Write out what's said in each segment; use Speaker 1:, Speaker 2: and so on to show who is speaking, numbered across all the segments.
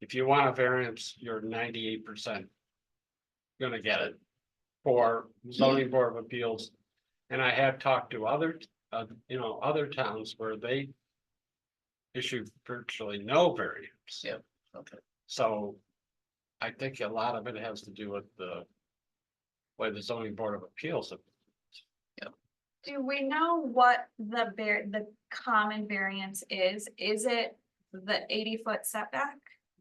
Speaker 1: If you want a variance, you're ninety-eight percent. Gonna get it. For zoning board of appeals. And I have talked to other, uh, you know, other towns where they. Issue virtually no variance.
Speaker 2: Yeah, okay.
Speaker 1: So. I think a lot of it has to do with the. Way the zoning board of appeals.
Speaker 3: Do we know what the var- the common variance is? Is it the eighty foot setback?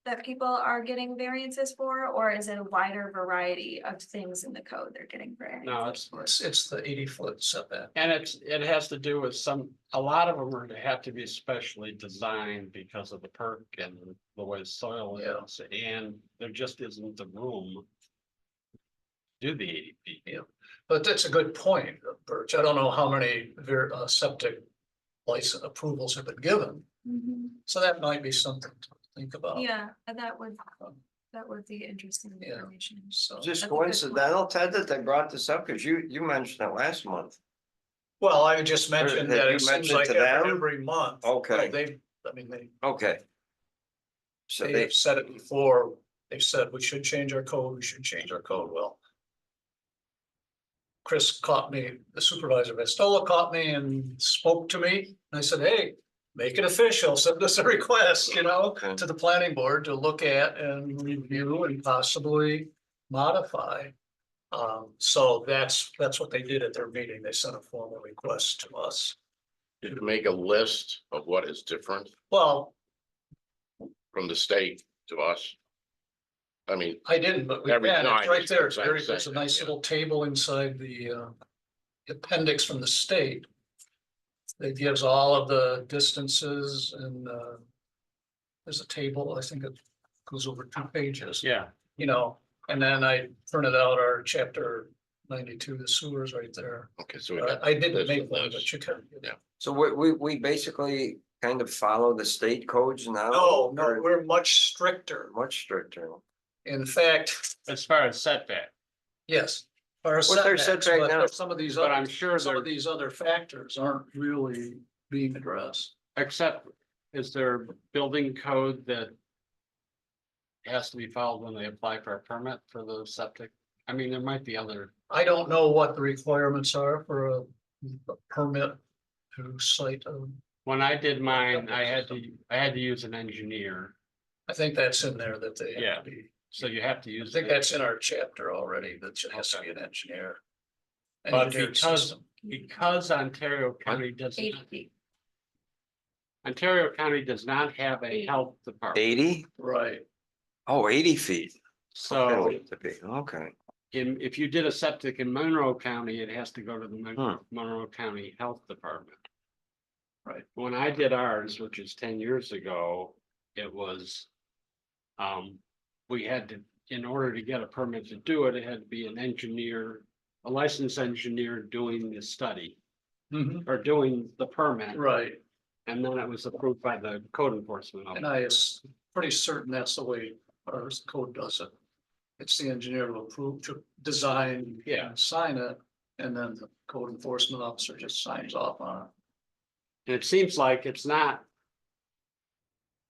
Speaker 3: That people are getting variances for, or is it a wider variety of things in the code they're getting variance?
Speaker 1: Now, it's
Speaker 2: It's, it's the eighty foot setback.
Speaker 1: And it's, it has to do with some, a lot of them are, they have to be specially designed because of the perk and the way the soil
Speaker 2: Yeah.
Speaker 1: is, and there just isn't the room. to Do the eighty feet.
Speaker 2: But that's a good point, Birch. I don't know how many ver- uh, septic license approvals have been given.
Speaker 3: Mhm.
Speaker 2: So that might be something to think about.
Speaker 3: Yeah, and that would, that would be interesting
Speaker 2: Yeah.
Speaker 3: information.
Speaker 2: So,
Speaker 4: Just
Speaker 3: That's a good point.
Speaker 4: coincidental, Ted, that they brought this up, because you, you mentioned it last month.
Speaker 2: well, I just mentioned
Speaker 4: Have
Speaker 2: that
Speaker 4: you
Speaker 2: it seems
Speaker 4: mentioned
Speaker 2: like
Speaker 4: to them?
Speaker 2: every every month.
Speaker 4: Okay.
Speaker 2: They, I mean, they,
Speaker 4: Okay. So
Speaker 2: they
Speaker 4: they,
Speaker 2: have said it before. They've said we should change our code, we should change our code. Well. Chris caught me, the supervisor, Vestola caught me and spoke to me. And I said, hey, make it official, send us a request, you know,
Speaker 4: Okay.
Speaker 2: to the planning board to look at and review and possibly modify. Um, so that's, that's what they did at their meeting. They sent a formal request to us.
Speaker 5: Did you make a list of what is different
Speaker 2: Well,
Speaker 5: from the state to us? I mean,
Speaker 2: I didn't, but we
Speaker 5: Every
Speaker 2: can, it's
Speaker 5: time
Speaker 2: right
Speaker 5: is
Speaker 2: there,
Speaker 5: what
Speaker 2: it's
Speaker 5: I'm
Speaker 2: very, it's a
Speaker 5: saying,
Speaker 2: nice
Speaker 5: yeah.
Speaker 2: little table inside the uh. Appendix from the state. That gives all of the distances and uh. There's a table, I think it goes over two pages,
Speaker 1: Yeah,
Speaker 2: you know, and then I printed out our chapter ninety-two, the sewers right there.
Speaker 5: okay, so we
Speaker 2: Uh,
Speaker 5: got-
Speaker 2: I didn't
Speaker 5: Oh, There's
Speaker 2: make
Speaker 5: the
Speaker 2: one,
Speaker 5: list.
Speaker 2: but you can.
Speaker 5: Yeah.
Speaker 4: so we, we, we basically kind of follow the state codes now.
Speaker 2: Oh, No, no,
Speaker 4: Or
Speaker 2: we're much stricter.
Speaker 4: Much stricter.
Speaker 2: In fact,
Speaker 1: as far as setback,
Speaker 2: yes. our
Speaker 4: What's our
Speaker 2: setbacks,
Speaker 4: setback
Speaker 2: but
Speaker 4: now?
Speaker 2: Some of these
Speaker 1: but
Speaker 2: other
Speaker 1: I'm sure
Speaker 2: some
Speaker 1: there,
Speaker 2: of these other factors aren't really being addressed.
Speaker 1: except, is there building code that? Has to be followed when they apply for a permit for the septic? I mean, there might be other,
Speaker 2: I don't know what the requirements are for a a permit to site. um,
Speaker 1: when I did mine, I had to, I had to use an engineer,
Speaker 2: I think that's in there that they have
Speaker 1: Yeah.
Speaker 2: to be.
Speaker 1: so you have to
Speaker 2: I
Speaker 1: use.
Speaker 2: think
Speaker 1: an
Speaker 2: that's in our chapter already, that it has to be an engineer.
Speaker 1: But
Speaker 2: Engineered
Speaker 1: because-
Speaker 2: system.
Speaker 1: Because Ontario County does,
Speaker 3: Eighty
Speaker 1: not-
Speaker 3: feet.
Speaker 1: Ontario County does not have a health department,
Speaker 4: Eighty?
Speaker 2: Right,
Speaker 4: Oh, eighty feet. That'll
Speaker 1: so
Speaker 4: have to be- Okay,
Speaker 1: in, if you did a septic in Monroe County, it has to go to the Mon-
Speaker 4: Hmm.
Speaker 1: Monroe County Health Department.
Speaker 2: Right.
Speaker 1: When I did ours, which is ten years ago, it was. Um, we had to, in order to get a permit to do it, it had to be an engineer, a licensed engineer doing the study
Speaker 2: Mhm,
Speaker 1: or doing the permit.
Speaker 2: right.
Speaker 1: And then it was approved by the code enforcement. officer.
Speaker 2: And I is pretty certain that's the way our code does it. It's the engineer to approve, to design.
Speaker 1: Yeah.
Speaker 2: and Sign it, and then the code enforcement officer just signs off on it.
Speaker 1: And it seems like it's not.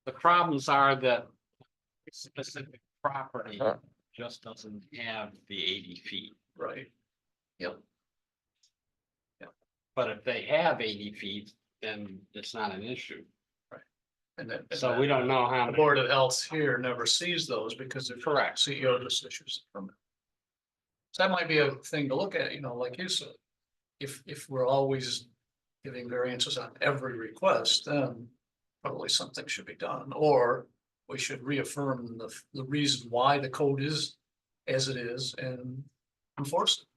Speaker 1: The problems are that specific property
Speaker 4: Huh.
Speaker 1: just doesn't have the eighty feet.
Speaker 2: Right. Yep.
Speaker 1: But if they have eighty feet, then it's not an issue.
Speaker 2: And then. and
Speaker 1: So
Speaker 2: then
Speaker 1: we don't know how.
Speaker 2: The
Speaker 1: many-
Speaker 2: Board of Health here never sees those because they're
Speaker 1: Correct.
Speaker 2: CEO just issues a permit. So that might be a thing to look at, you know, like you said. If, if we're always giving variances on every request, then probably something should be done, or we should reaffirm the, the reason why the code is as it is and enforce it.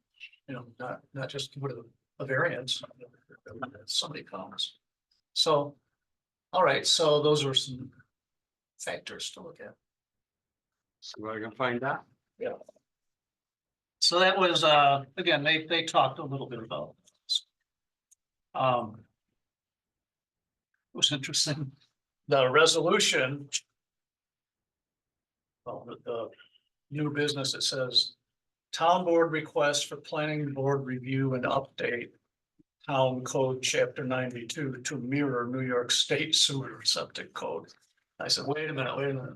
Speaker 2: You know, not, not just give it a- a variance, somebody comes. So, all right, so those were some factors to look at.
Speaker 1: So we're gonna find out.
Speaker 2: So that was, uh, again, they, they talked a little bit about. this. Um. It was interesting, the resolution. Well, the, the new business, it says town board request for planning board review and update. Town code chapter ninety-two to mirror New York State sewer septic code. I said, wait a minute, wait a minute.